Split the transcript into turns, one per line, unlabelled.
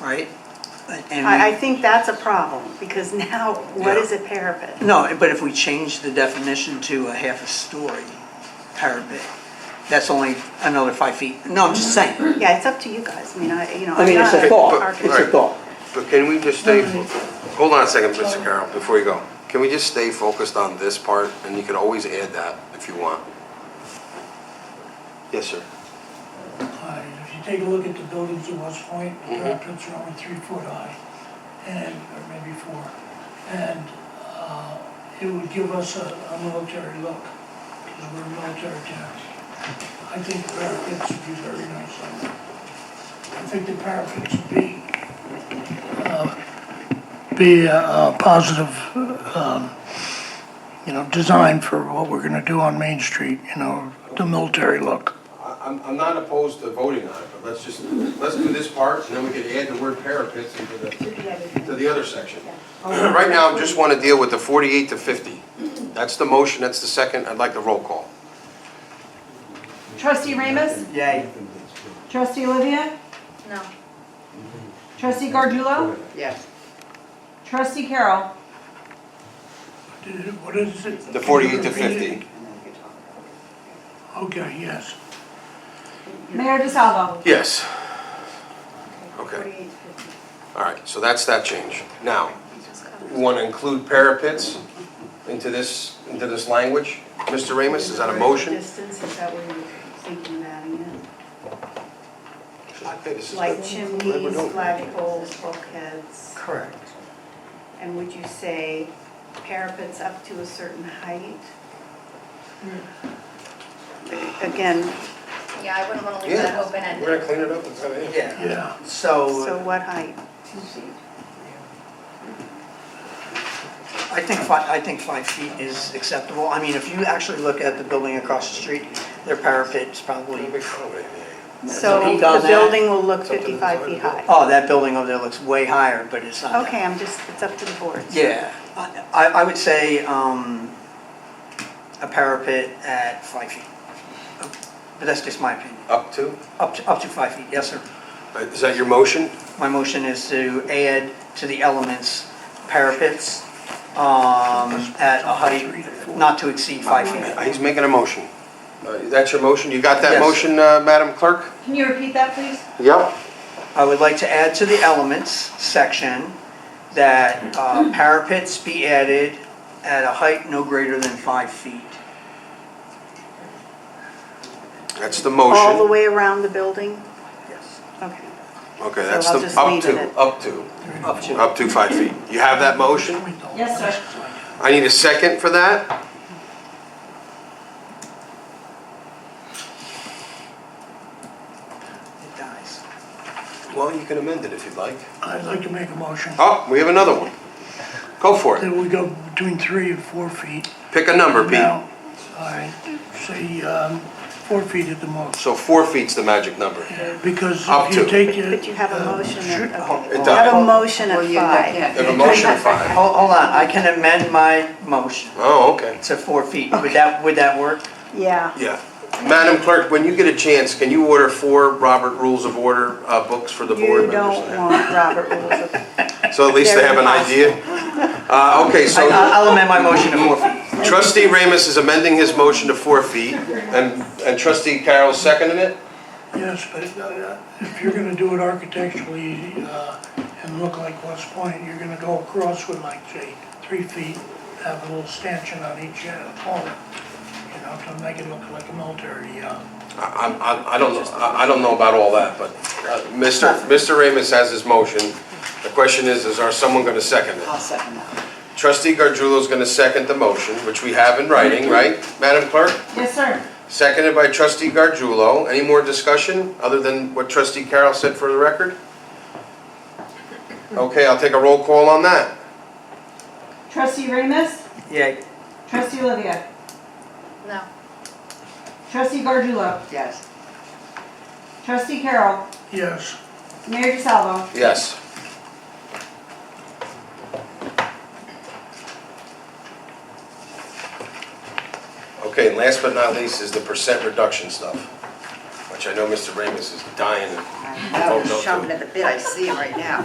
right? And
I, I
we-
think that's a problem, because now, what is a parapet?
No, but if we change the definition to a half a story parapet, that's only another five feet. No, I'm just saying.
Yeah, it's up to you guys, I mean, I, you know.
I mean,
I'm
it's
not
a thought,
architect.
it's a thought.
But can we just stay, hold on a second, Mr. Carroll, before you go. Can we just stay focused on this part, and you can always add that if you want? Yes, sir.
high. If you take a look at the buildings in West Point, the
Mhm.
parapets are only three foot high, and, or maybe four. And uh, it would give us a a military look, because we're a military town. I think the parapets would be very nice. on that. I think the parapets would be, uh, be a a positive, um, you know, design for what we're gonna do on Main Street, you know, the military look.
I- I'm, I'm not opposed to voting on it, but let's just, let's do this part, and then we can add the word parapets into the, to the other section. Right now, I just want to deal with the 48 to 50. That's the motion, that's the second, I'd like the roll call.
Trustee Ramus?
Yay.
Trustee Olivia?
No.
Trustee Gardullo?
Yes.
Trustee Carroll?
What is it?
The 48 to 50.
Okay, yes.
Mayor DeSalvo?
Yes. Okay.
Forty-eight fifty.
All right, so that's that change. Now, we want to include parapets into this, into this language? Mr. Ramus, is that a motion?
Distance, is that what you're thinking of adding in?
Okay, this is
Like
good.
chimneys, flagpoles, bulkheads,
Correct.
and would you say parapets up to a certain height?
Hmm.
Again,
Yeah, I wouldn't want to leave that
Yeah,
open
we're going
ended.
to clean it up and cut it in.
Yeah.
so
So
what height?
I think five, I think five feet is acceptable. I mean, if you actually look at the building across the street, their parapet's probably,
So
Peak on
the
that.
building will look
Something
fifty-five
inside
feet
the building.
high.
oh, that building over there looks way higher, but it's not. that.
Okay, I'm just, it's up to the board.
Yeah, I- I, I would say, um, a parapet at five feet. But that's just my opinion.
Up to?
Up to, up to five feet, yes, sir.
Uh, Is that your motion?
My motion is to add to the elements parapets, um, at a height not to exceed five
Uh,
feet.
He's making a motion. Uh, That's your motion? You got that
Yes.
motion, uh, Madam Clerk?
Can you repeat that, please?
Yep.
I would like to add to the elements section that, uh, parapets be added at a height no greater than five feet.
That's the
All the
motion.
way around the building?
Yes.
Okay.
Okay,
So
that's
I'll
the,
just
up
leave it
to,
at-
up to,
Up to.
up to five feet. You have that motion?
Yes, sir.
I need a second for that.
It dies.
Well, you can amend it if you'd like.
I'd like to make a motion
Oh, we have another one. Go for it.
that we go between three and four feet.
Pick a number, Pete.
Now, I say um, four feet at the most, Uh,
So four feet's the magic number.
because
Up
if you
to.
take
But
it. uh,
but you have a motion at, okay.
Um, Oh, It
You have a
does.
motion at five.
They have a motion of five.
Hold, hold on, I can amend my motion
Oh, okay.
to four feet. Would that, would that work?
Yeah.
Yeah. Madam Clerk, when you get a chance, can you order four Robert Rules of Order uh, books for the
You
board
don't
members?
want Robert rules of,
So at least they
They're
have an idea? Uh, Okay,
I-
so
I'll amend my motion to four feet.
trustee Ramus is amending his motion to four feet, and and trustee Carroll's seconding it?
Yes, but uh, if you're gonna do it architecturally uh, and look like West Point, you're gonna go across with like, say, three feet, have a little stanchion on each uh, corner, you know, to make it look like a military, uh,
I I'm- I'm- I don't, know- I I don't know about all that, but uh, Mr. Mr. Ramus has his motion. The question is, is are someone going to second it?
second that.
Trustee Gardjulo's going to second the motion, which we have in writing, right, Madam Clerk?
Yes, sir.
Seconded by trustee Gardjulo. Any more discussion other than what trustee Carroll said for the record? Okay, I'll take a roll call on that.
Trustee Ramus?
Yay.
Trustee Olivia?
No.
Trustee Gardullo?
Yes.
Trustee Carroll?
yes.
Mayor DeSalvo?
Yes. Okay, and last but not least is the percent reduction stuff, which
which I know Mr. Ramus is dying to Oh,
I know, he's chomping at the bit, I see him right now.